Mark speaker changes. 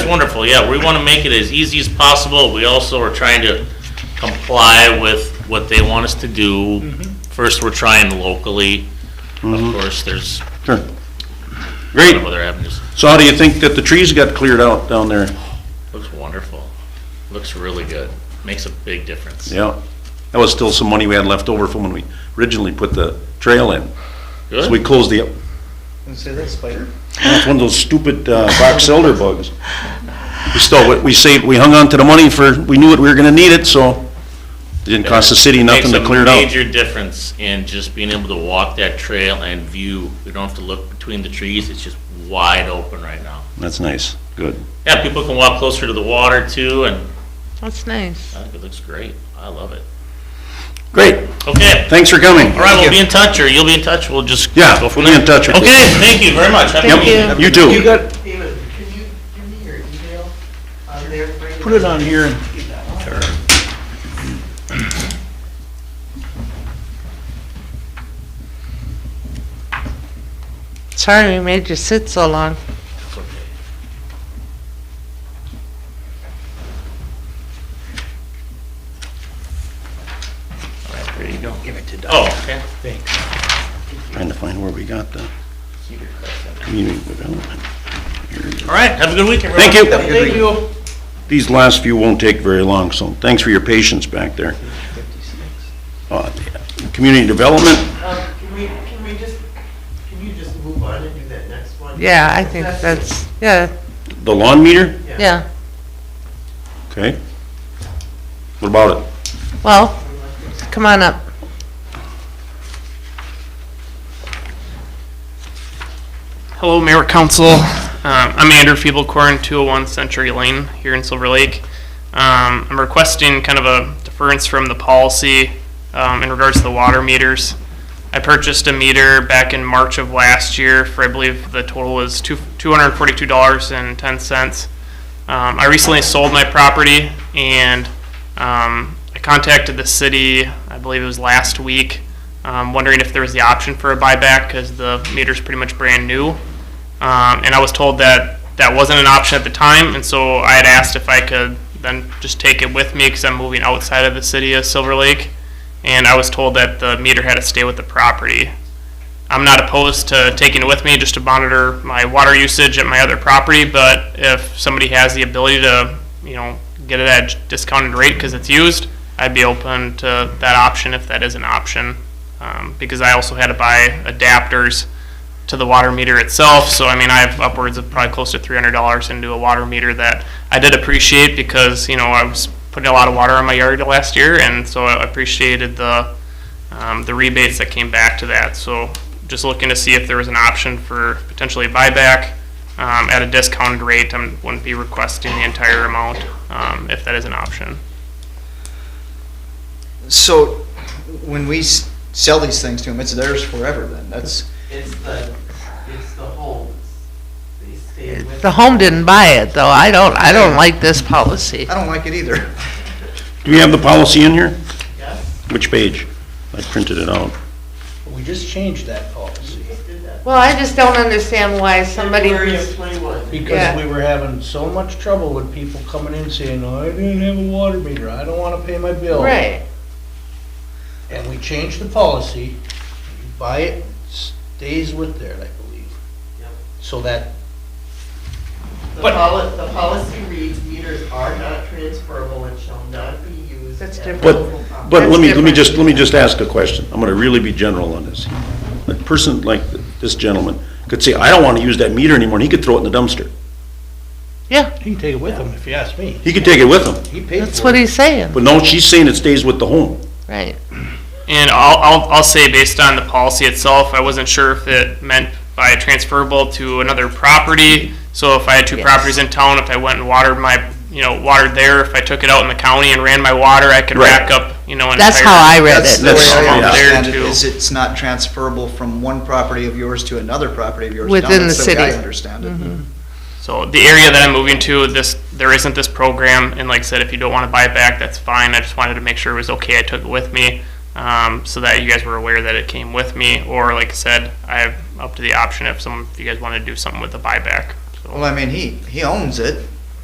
Speaker 1: Wonderful, yeah, we want to make it as easy as possible. We also are trying to comply with what they want us to do. First, we're trying locally.
Speaker 2: Mm-hmm.
Speaker 1: Of course, there's
Speaker 2: Sure.
Speaker 1: a
Speaker 2: Great.
Speaker 1: lot of other avenues.
Speaker 2: So how do you think that the trees got cleared out down there?
Speaker 1: Looks wonderful. Looks really good. Makes a big difference.
Speaker 2: Yeah. That was still some money we had left over from when we originally put the trail in. So we
Speaker 1: Good?
Speaker 2: closed the,
Speaker 3: And say that spider.
Speaker 2: it's one of those stupid uh, box elder bugs. We still, we saved, we hung on to the money for, we knew that we were gonna need it, so it didn't cost the city nothing to clear it
Speaker 1: Makes
Speaker 2: out.
Speaker 1: a major difference in just being able to walk that trail and view. We don't have to look between the trees. It's just wide open right now.
Speaker 2: That's nice, good.
Speaker 1: Yeah, people can walk closer to the water too, and
Speaker 4: That's nice.
Speaker 1: I think it looks great. I love it.
Speaker 2: Great,
Speaker 1: Okay.
Speaker 2: thanks for coming.
Speaker 1: All right, we'll be in touch, or you'll be in touch, we'll just.
Speaker 2: Yeah,
Speaker 1: go from
Speaker 2: be in
Speaker 1: there.
Speaker 2: touch with you.
Speaker 1: Okay, thank you very much. Happy
Speaker 4: Thank
Speaker 1: meeting
Speaker 4: you.
Speaker 2: You too.
Speaker 3: got,
Speaker 5: David, can you give me your email on there? Brady?
Speaker 3: put it on here and
Speaker 4: Sorry we made you sit so long.
Speaker 1: It's okay. All right, there you go.
Speaker 3: give it to Doc.
Speaker 1: Oh, okay.
Speaker 2: Trying to find where we got the community development.
Speaker 1: All right, have a good week, everyone.
Speaker 2: Thank you.
Speaker 3: Thank you.
Speaker 2: These last few won't take very long, so thanks for your patience back there. Uh, Community development,
Speaker 5: Um, Can we, can we just, can you just move on and do that next one?
Speaker 4: Yeah, I think that's, yeah,
Speaker 2: the lawn meter,
Speaker 4: yeah.
Speaker 2: okay? What about it?
Speaker 4: Well, come on up.
Speaker 6: Hello, Mayor Council. Um, I'm Andrew Feeblecorn, 201 Century Lane here in Silver Lake. Um, I'm requesting kind of a deference from the policy um, in regards to the water meters. I purchased a meter back in March of last year for, I believe, the total was two- $242.10. Um, I recently sold my property and um, I contacted the city, I believe it was last week, um, wondering if there was the option for a buyback because the meter's pretty much brand new. Um, and I was told that that wasn't an option at the time, and so I had asked if I could then just take it with me because I'm moving outside of the city of Silver Lake. And I was told that the meter had to stay with the property. I'm not opposed to taking it with me just to monitor my water usage at my other property, but if somebody has the ability to, you know, get it at discounted rate because it's used, I'd be open to that option if that is an option. Um, because I also had to buy adapters to the water meter itself, so I mean, I have upwards of probably close to three hundred dollars into a water meter that I did appreciate because, you know, I was putting a lot of water on my yard last year, and so I appreciated the, um, the rebates that came back to that. So just looking to see if there was an option for potentially buyback um, at a discounted rate. I wouldn't be requesting the entire amount um, if that is an option.
Speaker 3: So when we s- sell these things to them, it's theirs forever then. That's,
Speaker 5: It's the, it's the homes. They stay with.
Speaker 4: The home didn't buy it, though. I don't, I don't like this policy.
Speaker 3: I don't like it either.
Speaker 2: Do we have the policy in here?
Speaker 5: Yes,
Speaker 2: Which page? I printed it out.
Speaker 7: We just changed that policy
Speaker 5: they did that.
Speaker 4: Well, I just don't understand why somebody
Speaker 5: February
Speaker 4: who's,
Speaker 5: of twenty-one.
Speaker 4: Yeah.
Speaker 7: because we were having so much trouble with people coming in saying, "Oh, I didn't have a water meter, I don't wanna pay my bill.
Speaker 4: right,
Speaker 7: And we changed the policy, you buy it, stays with there, I believe.
Speaker 5: Yep.
Speaker 7: So that,
Speaker 5: The
Speaker 7: But-
Speaker 5: poli, the policy reads meters are not transferable and shall not be used.
Speaker 4: That's
Speaker 5: at
Speaker 4: different.
Speaker 2: But,
Speaker 5: local property.
Speaker 2: but let me, let me
Speaker 4: That's different.
Speaker 2: just, let me just ask a question. I'm gonna really be general on this. A person like this gentleman could say, I don't wanna use that meter anymore, and he could throw it in the dumpster.
Speaker 4: yeah,
Speaker 7: he can take it with him if you ask me.
Speaker 2: He could take it with him,
Speaker 7: He paid
Speaker 4: that's
Speaker 7: for
Speaker 4: what
Speaker 7: it.
Speaker 4: he's saying,
Speaker 2: but no, she's saying it stays with the home.
Speaker 4: right.
Speaker 6: And I'll, I'll, I'll say based on the policy itself, I wasn't sure if it meant by transferable to another property. So if I had two
Speaker 4: Yes.
Speaker 6: properties in town, if I went and watered my, you know, watered there, if I took it out in the county and ran my water, I could
Speaker 2: Right.
Speaker 6: rack up, you know, an
Speaker 4: That's
Speaker 6: entire-
Speaker 4: how I read
Speaker 3: That's the way
Speaker 4: it,
Speaker 2: That's-
Speaker 3: I
Speaker 2: yeah.
Speaker 3: understand it,
Speaker 6: There, too.
Speaker 3: is it's not transferable from one property of yours to another property of yours. down.
Speaker 4: Within the
Speaker 3: That's way I
Speaker 4: city.
Speaker 3: understand it.
Speaker 6: So the area that I'm moving to, this, there isn't this program, and like I said, if you don't want to buy it back, that's fine. I just wanted to make sure it was okay. I took it with me, um, so that you guys were aware that it came with me. Or like I said, I have up to the option if some, if you guys want to do something with the buyback. So
Speaker 3: Well, I mean, he, he owns it.